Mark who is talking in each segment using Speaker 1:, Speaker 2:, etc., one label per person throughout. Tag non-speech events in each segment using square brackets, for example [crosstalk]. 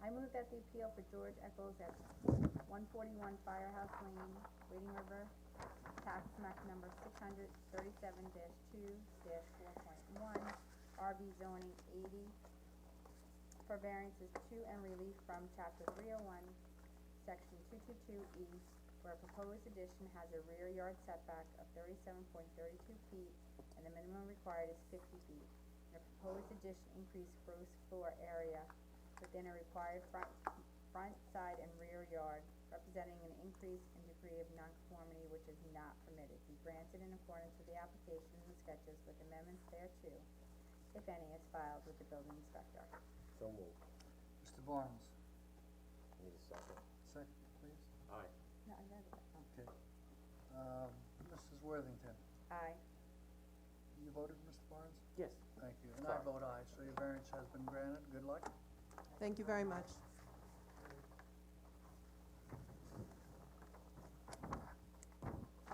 Speaker 1: I move that the appeal for George Echols at one forty-one Firehouse Lane, Wading River, tax map number six hundred thirty-seven two four point one, RB zoning eighty, for variances to and relief from chapter three oh one, section two two two E, where a proposed addition has a rear yard setback of thirty-seven point thirty-two feet, and the minimum required is fifty feet. The proposed addition increased gross floor area within a required front, front, side, and rear yard, representing an increase in degree of nonconformity which is not permitted, be granted in accordance with the application and sketches with amendments thereto, if any, is filed with the building inspector.
Speaker 2: So moved.
Speaker 3: Mr. Barnes,
Speaker 2: Need a second?
Speaker 3: second, please.
Speaker 2: Aye.
Speaker 1: No, I read it. Oh.
Speaker 3: Okay. Um, Mrs. Worthington,
Speaker 1: Aye.
Speaker 3: you voted, Mr. Barnes?
Speaker 2: Yes.
Speaker 3: Thank you. And I
Speaker 2: Sorry.
Speaker 3: vote aye, so your variance has been granted. Good luck.
Speaker 4: Thank you very much.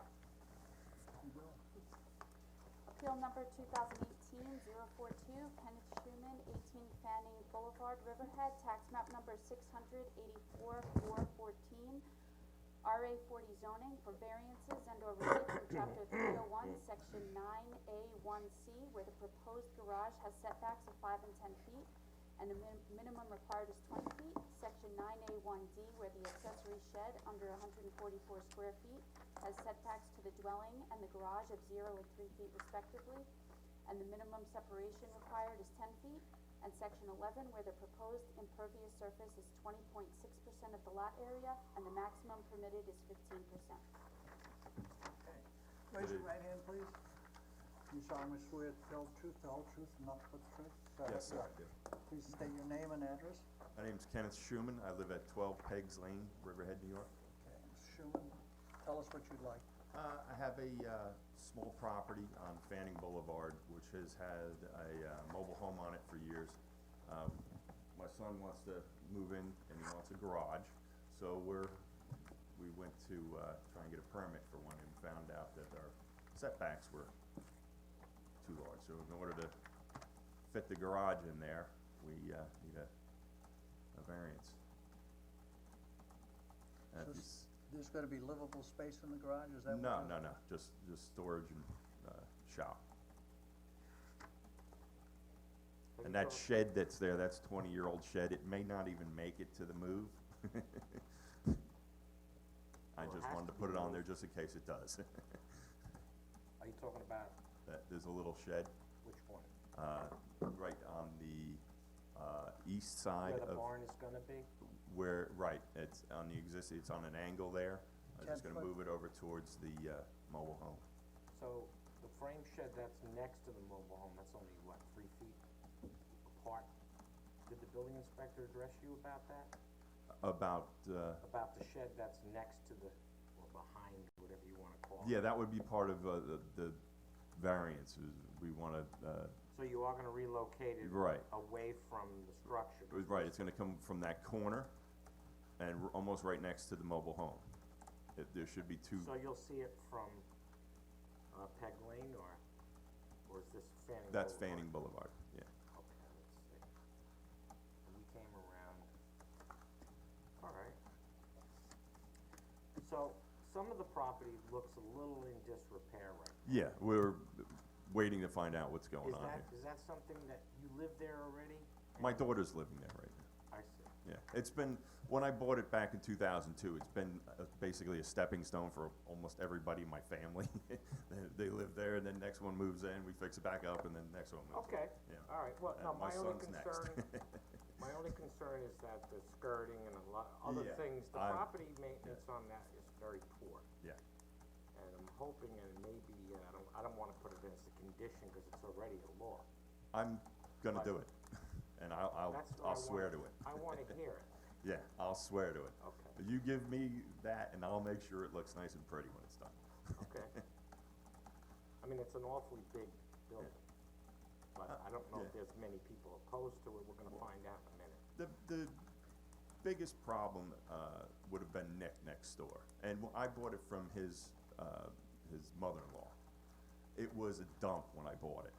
Speaker 3: You go.
Speaker 5: Appeal number 2018-042, Kenneth Schuman, eighteen Fanning Boulevard, Riverhead, tax map number six hundred eighty-four four fourteen, RA forty zoning for variances and or relief from chapter three oh one, section nine A one C, where the proposed garage has setbacks of five and ten feet, and the min- minimum required is twenty feet, section nine A one D, where the accessory shed under hundred and forty-four square feet has setbacks to the dwelling and the garage of zero and three feet respectively, and the minimum separation required is ten feet, and section eleven, where the proposed impervious surface is twenty point six percent of the lot area, and the maximum permitted is fifteen percent.
Speaker 3: Okay. Raise your right hand, please. You solemnly swear to tell the truth, the whole truth, and nothing but the truth? so help you
Speaker 6: Yes, sir, I
Speaker 3: God.
Speaker 6: do.
Speaker 3: Please state your name and address.
Speaker 6: My name's Kenneth Schuman. I live at twelve Pegs Lane, Riverhead, New York.
Speaker 3: Okay, Mr. Schuman, tell us what you'd like.
Speaker 6: Uh, I have a, uh, small property on Fanning Boulevard, which has had a, uh, mobile home on it for years. Um, my son wants to move in and he wants a garage, so we're, we went to, uh, try and get a permit for one and found out that our setbacks were too large. So in order to fit the garage in there, we, uh, need a, a variance. And
Speaker 3: So
Speaker 6: if you
Speaker 3: s-
Speaker 6: s-
Speaker 3: There's gonna be livable space in the garage, is that what?
Speaker 6: no,
Speaker 3: you're-
Speaker 6: no, no, just, just storage and, uh, shop. And that shed that's there, that's twenty-year-old shed, it may not even make it to the move. [laughs] I
Speaker 2: Well, it
Speaker 6: just
Speaker 2: has
Speaker 6: wanted
Speaker 2: to
Speaker 6: to
Speaker 2: be
Speaker 6: put it on there
Speaker 2: moved.
Speaker 6: just in case it does. [laughs]
Speaker 2: Are you talking about
Speaker 6: That, there's a little shed,
Speaker 2: which one?
Speaker 6: uh, right on the, uh, east side
Speaker 2: Where the
Speaker 6: of,
Speaker 2: barn is gonna be?
Speaker 6: where, right, it's on the exist, it's on an angle there. I'm just
Speaker 3: Ten
Speaker 6: gonna
Speaker 3: foot.
Speaker 6: move it over towards the, uh, mobile home.
Speaker 2: So the frame shed that's next to the mobile home, that's only what, three feet apart? Did the building inspector address you about that?
Speaker 6: About, uh,
Speaker 2: About the shed that's next to the, or behind, whatever you wanna call it?
Speaker 6: Yeah, that would be part of, uh, the, the variance, is we wanna, uh,
Speaker 2: So you are gonna relocate it?
Speaker 6: Right.
Speaker 2: Away from the structure?
Speaker 6: right, it's gonna come from that corner and r- almost right next to the mobile home. It, there should be two,
Speaker 2: So you'll see it from, uh, Peg Lane or, or is this Fanning
Speaker 6: that's
Speaker 2: Boulevard?
Speaker 6: Fanning Boulevard, yeah.
Speaker 2: Okay, let's see. We came around, alright. So, some of the property looks a little in disrepair right
Speaker 6: Yeah, we're waiting to find out what's going
Speaker 2: Is
Speaker 6: on
Speaker 2: that,
Speaker 6: here.
Speaker 2: is that something that, you live there already?
Speaker 6: My daughter's living there right now,
Speaker 2: I see,
Speaker 6: yeah. It's been, when I bought it back in two thousand two, it's been uh, basically a stepping stone for almost everybody in my family. [laughs] They, they live there, and then next one moves in, we fix it back up, and then next one moves in.
Speaker 2: okay,
Speaker 6: Yeah.
Speaker 2: alright, well,
Speaker 6: And
Speaker 2: no,
Speaker 6: my
Speaker 2: my only
Speaker 6: son's next. [laughs]
Speaker 2: concern, my only concern is that the skirting and a lot, other
Speaker 6: Yeah,
Speaker 2: things, the
Speaker 6: I'm-
Speaker 2: property maintenance on that is very poor.
Speaker 6: Yeah.
Speaker 2: And I'm hoping, and maybe, uh, I don't, I don't wanna put it as a condition, cause it's already a law.
Speaker 6: I'm gonna
Speaker 2: Right.
Speaker 6: do it, [laughs] and I'll, I'll,
Speaker 2: That's what I
Speaker 6: I'll swear to
Speaker 2: wanna-
Speaker 6: it,
Speaker 2: I wanna
Speaker 6: [laughs]
Speaker 2: hear it,
Speaker 6: yeah, I'll swear to it.
Speaker 2: okay,
Speaker 6: [laughs] You give me that and I'll make sure it looks nice and pretty when it's done.
Speaker 2: okay. I mean, it's an awfully big building, but I don't know if
Speaker 6: yeah.
Speaker 2: there's many people opposed to it, we're gonna find out in a minute.
Speaker 6: The, the biggest problem, uh, would have been Nick next door, and wh- I bought it from his, uh, his mother-in-law. It was a dump when I bought it,